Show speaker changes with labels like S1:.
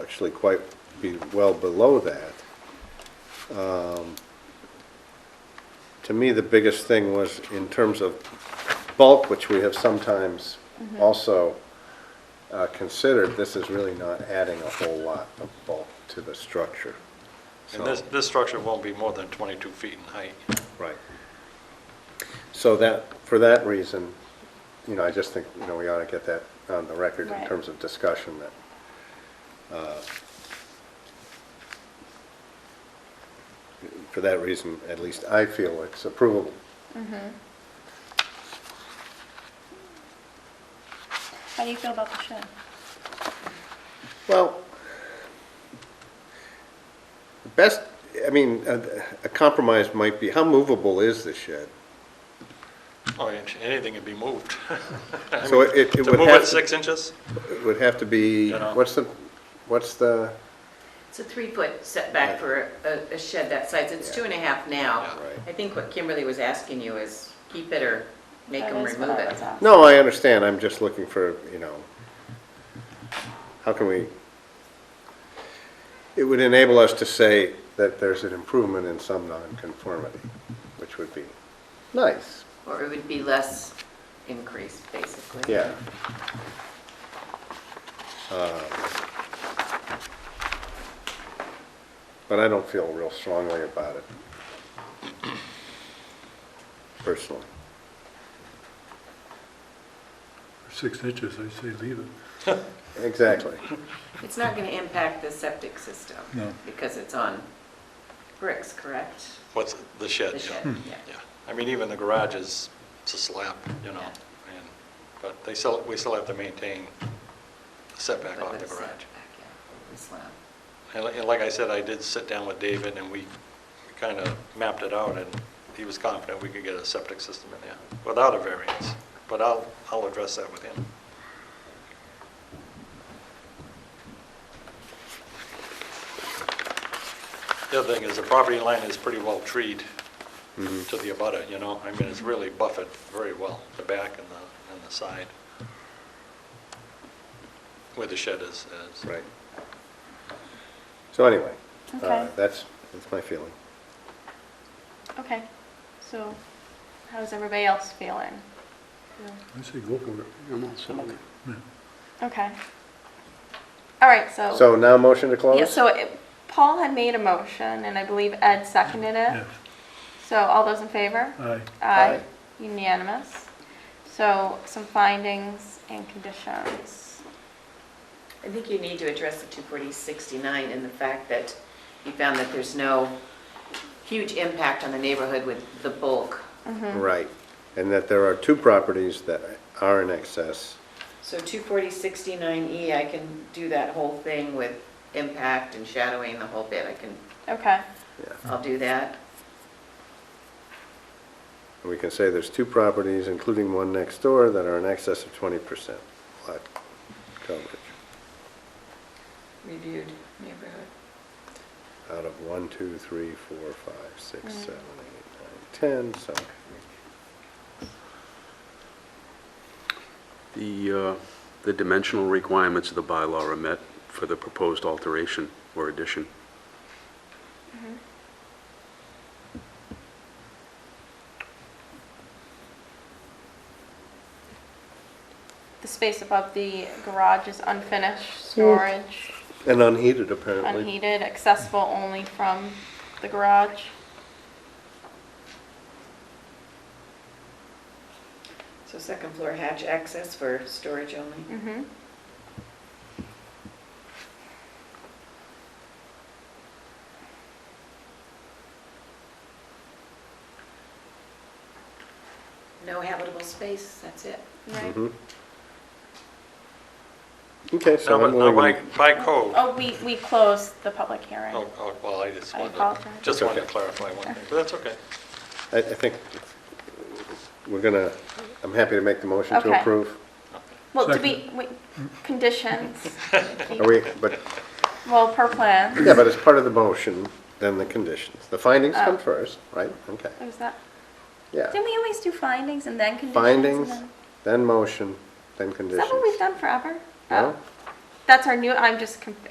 S1: actually quite be well below that. Um, To me, the biggest thing was in terms of bulk, which we have sometimes also uh, considered, this is really not adding a whole lot of bulk to the structure.
S2: And
S1: So-
S2: this, this structure won't be more than 22 feet in height.
S1: Right. So that, for that reason, you know, I just think, you know, we ought to get that on the record in
S3: Right.
S1: terms of discussion that, uh, for that reason, at least I feel it's approvable.
S3: How do you feel about the shed?
S1: Well, the best, I mean, a a compromise might be, how movable is the shed?
S2: Oh, and anything can be moved. I
S1: So
S2: mean,
S1: it- it
S2: To
S1: would
S2: move
S1: have
S2: it
S1: to-
S2: six inches?
S1: It would have to be,
S2: You know.
S1: what's the, what's the,
S4: It's a three-foot setback for a a shed that size, it's two and a half now.
S2: Yeah.
S1: Right.
S4: I think what Kimberly was asking you is keep it or make
S3: That
S4: them
S3: is what
S4: remove
S3: I
S4: it.
S3: was asking.
S1: No, I understand, I'm just looking for, you know, how can we, it would enable us to say that there's an improvement in some nonconformity, which would be nice,
S4: Or it would be less increase, basically.
S1: yeah. Um, But I don't feel real strongly about it, personally.
S5: Six inches, I say leave it.
S1: Exactly.
S4: It's not going to impact the septic system.
S5: No.
S4: Because it's on bricks, correct?
S2: What's, the shed,
S4: The
S2: yeah.
S4: shed,
S1: Hmm.
S4: yeah.
S2: Yeah, I mean, even the garage is, it's a slab, you know, and, but they still, we still have to maintain setback
S4: But
S2: off the
S4: it's
S2: garage.
S4: setback, yeah, the slab.
S2: And li- and like I said, I did sit down with David, and we kind of mapped it out, and he was confident we could get a septic system in there without a variance, but I'll, I'll address that with him. The other thing is, the property line is pretty well treed to the abutter, you know? I mean, it's really buffered very well, the back and the, and the side, where the shed is. is.
S1: Right. So anyway, uh,
S3: Okay.
S1: that's, that's my feeling.
S3: Okay, so how's everybody else feeling?
S5: I say go for it.
S6: I'm all set with it.
S5: Yeah.
S3: Okay. All right, so.
S1: So now motion to close?
S3: Yeah, so it- Paul had made a motion and I believe Ed seconded it.
S5: Yes,
S3: So all those in favor?
S5: aye.
S1: Aye.
S3: Unanimous. So some findings and conditions.
S4: I think you need to address the 24069 and the fact that you found that there's no huge impact on the neighborhood with the bulk.
S1: Mm-hmm. Right, and that there are two properties that are in excess.
S4: So 24069E, E, I can do that whole thing with impact and shadowing the whole bit. I can,
S3: Okay,
S4: I'll do that.
S1: And we can say there's two properties, including one next door, that are in excess of 20% lot coverage
S4: Reviewed neighborhood.
S1: out of 1, 2, 3, 4, 5,
S3: Mm.
S1: 6, 7, 8, 9, 10, so,
S6: The, uh, the dimensional requirements of the bylaw are met for the proposed alteration or addition.
S3: the space above the garage is unfinished, storage,
S1: and unheated apparently.
S3: unheated, accessible only from the garage.
S4: So second floor hatch access for storage only.
S3: Mm-hmm.
S4: No habitable space, that's it.
S3: Right.
S1: Mhm. Okay,
S2: Now,
S1: so
S2: but-
S1: I'm
S2: now, by,
S1: willing, to-
S2: by code,
S3: Oh, we, we closed the public hearing.
S2: Oh, oh, well, I just
S3: I
S2: wanted, to-
S3: apologize.
S2: just
S1: That's
S2: wanted to
S1: okay.
S2: clarify one thing, but that's okay.
S1: I I think we're gonna, I'm happy to make the motion to
S3: Okay.
S1: approve.
S3: Well, to be, wait, conditions,
S1: Are we, but,
S3: well, per plan,
S1: yeah, but as part of the motion, then the conditions. The findings come
S3: Oh.
S1: first, right? Okay,
S3: what was that?
S1: yeah.
S3: Didn't we always do findings and then conditions? and
S1: Findings,
S3: then-
S1: then motion, then
S3: Is
S1: conditions.
S3: that what we've done forever?
S1: No?
S3: Oh. That's our new, I'm just, conf-